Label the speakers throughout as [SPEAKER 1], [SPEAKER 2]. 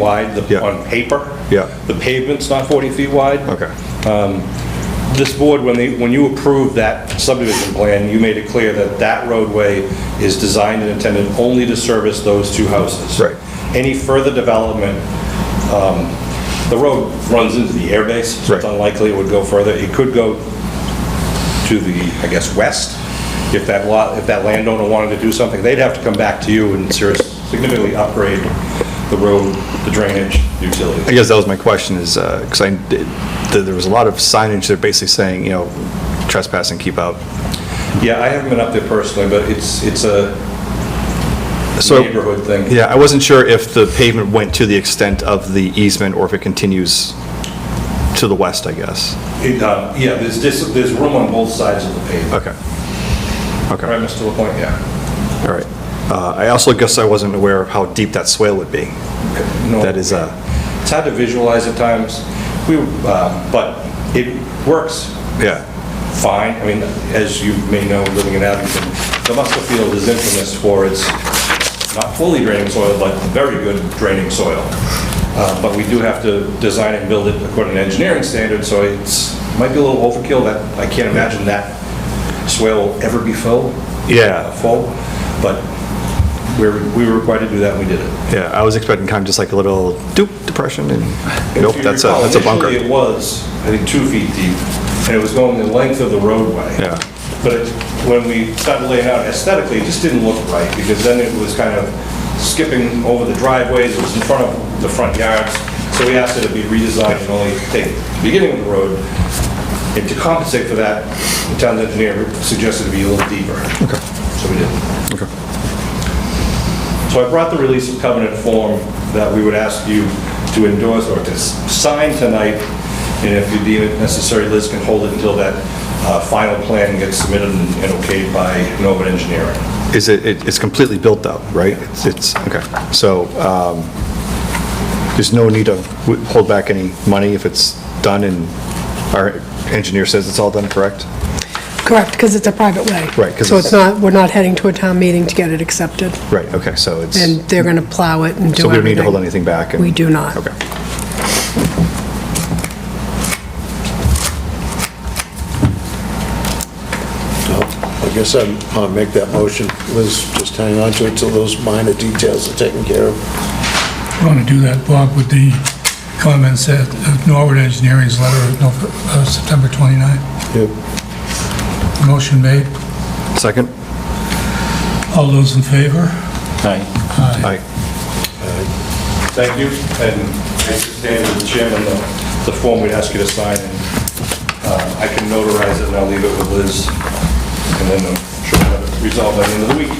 [SPEAKER 1] wide the-
[SPEAKER 2] Yeah.
[SPEAKER 1] on paper.
[SPEAKER 2] Yeah.
[SPEAKER 1] The pavement's not 40 feet wide.
[SPEAKER 2] Okay.
[SPEAKER 1] This board, when they, when you approved that subdivision plan, you made it clear that that roadway is designed and intended only to service those two houses.
[SPEAKER 2] Right.
[SPEAKER 1] Any further development, um, the road runs into the airbase, so it's
[SPEAKER 2] Right.
[SPEAKER 1] unlikely it would go further. It could go to the, I guess, west. If that lot, if that landowner wanted to do something, they'd have to come back to you and serious- significantly upgrade the road, the drainage, the utilities.
[SPEAKER 2] I guess that was my question is, because I, did- th- there was a lot of signage that basically saying, you know, trespass and keep out.
[SPEAKER 1] Yeah, I haven't been up there personally, but it's, it's a
[SPEAKER 2] So-
[SPEAKER 1] neighborhood thing.
[SPEAKER 2] Yeah, I wasn't sure if the pavement went to the extent of the easement or if it continues to the west, I guess.
[SPEAKER 1] It, uh, Yeah, there's, dis- there's room on both sides of the pavement.
[SPEAKER 2] Okay.
[SPEAKER 1] Right,
[SPEAKER 2] Okay,
[SPEAKER 1] Mr. LaPointe, yeah.
[SPEAKER 2] all right. Uh, I also guess I wasn't aware of how deep that swale would be.
[SPEAKER 1] No,
[SPEAKER 2] That is, uh,
[SPEAKER 1] It's hard to visualize at times, we, uh, but it works
[SPEAKER 2] yeah,
[SPEAKER 1] fine. I mean, as you may know, living in Abington, the Musco Field is infamous for its not fully draining soil, but very good draining soil. Uh, But we do have to design and build it according to engineering standards, so it's, might be a little overkill, that, I can't imagine that swale will ever be full.
[SPEAKER 2] Yeah.
[SPEAKER 1] uh, Full, but we're, we were required to do that, and we did it.
[SPEAKER 2] yeah, I was expecting kind of just like a little doop depression and,
[SPEAKER 1] If
[SPEAKER 2] nope,
[SPEAKER 1] you
[SPEAKER 2] that's a,
[SPEAKER 1] recall,
[SPEAKER 2] that's a bunker.
[SPEAKER 1] Initially, it was, I think, two feet deep, and it was going the length of the roadway.
[SPEAKER 2] Yeah.
[SPEAKER 1] But it- when we started laying out aesthetically, it just didn't look right, because then it was kind of skipping over the driveways, it was in front of the front yards, so we asked it to be redesigned and only take the beginning of the road. And to compensate for that, the town engineer suggested it be a little deeper. Okay. So we did. So I brought the release of covenant form that we would ask you to endorse or to s- sign tonight, and if you deem it necessary, Liz can hold it until that uh, final plan gets submitted and and okayed by Nova Engineering.
[SPEAKER 2] Is it, it- it's completely built out, right? It's- It's, okay, so um, there's no need to w- hold back any money if it's done and our engineer says it's all done, correct?
[SPEAKER 3] Correct, because it's a private way.
[SPEAKER 2] Right, 'cause
[SPEAKER 3] So
[SPEAKER 2] it's-
[SPEAKER 3] it's not, we're not heading to a town meeting to get it accepted,
[SPEAKER 2] Right, okay, so it's,
[SPEAKER 3] and they're going to plow it and do
[SPEAKER 2] so
[SPEAKER 3] everything.
[SPEAKER 2] we don't need to hold anything back? and-
[SPEAKER 3] We do not.
[SPEAKER 2] Okay.
[SPEAKER 4] I guess I'd uh, make that motion. Liz, just hang on to it till those minor details are taken care of.
[SPEAKER 5] I want to do that, Bob, with the comments that of Norwood Engineering's letter of Nov- uh, September 29.
[SPEAKER 4] Yep.
[SPEAKER 5] Motion made.
[SPEAKER 2] Second?
[SPEAKER 5] All those in favor?
[SPEAKER 2] Aye.
[SPEAKER 1] Thank you, and I stand with the chairman, uh, the- the form we'd ask you to sign, and uh, I can notarize it, and I'll leave it with Liz, and then I'm sure we'll have it resolved by the end of the week.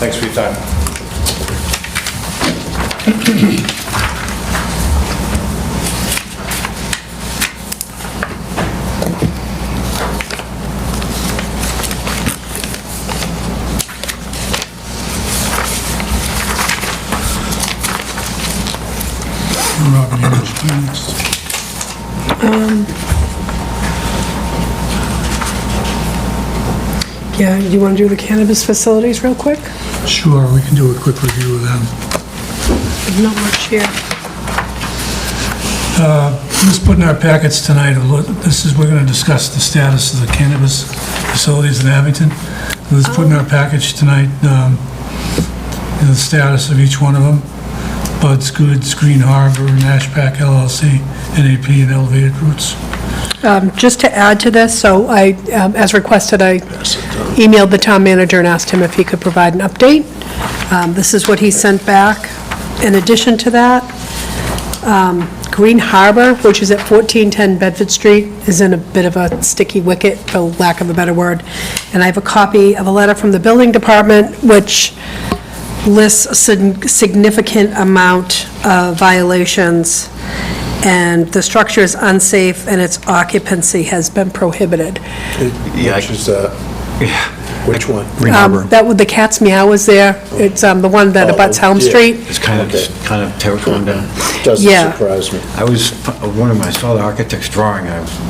[SPEAKER 1] Thanks for your time.
[SPEAKER 5] Robert English, please.
[SPEAKER 3] Yeah, you want to do the cannabis facilities real quick?
[SPEAKER 5] Sure, we can do a quick review of them.
[SPEAKER 3] There's Not much here.
[SPEAKER 5] Just put in our packets tonight, a look- this is, we're going to discuss the status of the cannabis facilities in Abington. Let's put in our package tonight um, the status of each one of them. Bud's Goods, Green Harbor, Nash Pack LLC, NAP, and Elevated Roots.
[SPEAKER 3] Um, Just to add to this, so I, um, as requested, I emailed the town manager and asked him if he could provide an update. Um, This is what he sent back. In addition to that, um, Green Harbor, which is at 1410 Bedford Street, is in a bit of a sticky wicket, for lack of a better word. And I have a copy of a letter from the building department, which lists a sig- significant amount of violations, and the structure is unsafe, and its occupancy has been prohibited.
[SPEAKER 4] Which is that? Which one?
[SPEAKER 3] Um, That, with the cat's meow was there, it's um, the one that abuts Helm
[SPEAKER 4] Oh, yeah.
[SPEAKER 3] Street.
[SPEAKER 6] It's kind of, kind of terrifying down.
[SPEAKER 4] Doesn't
[SPEAKER 3] yeah.
[SPEAKER 4] surprise me.
[SPEAKER 6] I was, uh, one of my, I saw the architect's drawing, I was,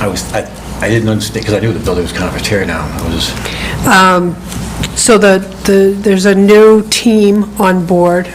[SPEAKER 6] I was, I I didn't understand, because I knew the building was kind of a tear down. I was,
[SPEAKER 3] So the, the, there's a new team on board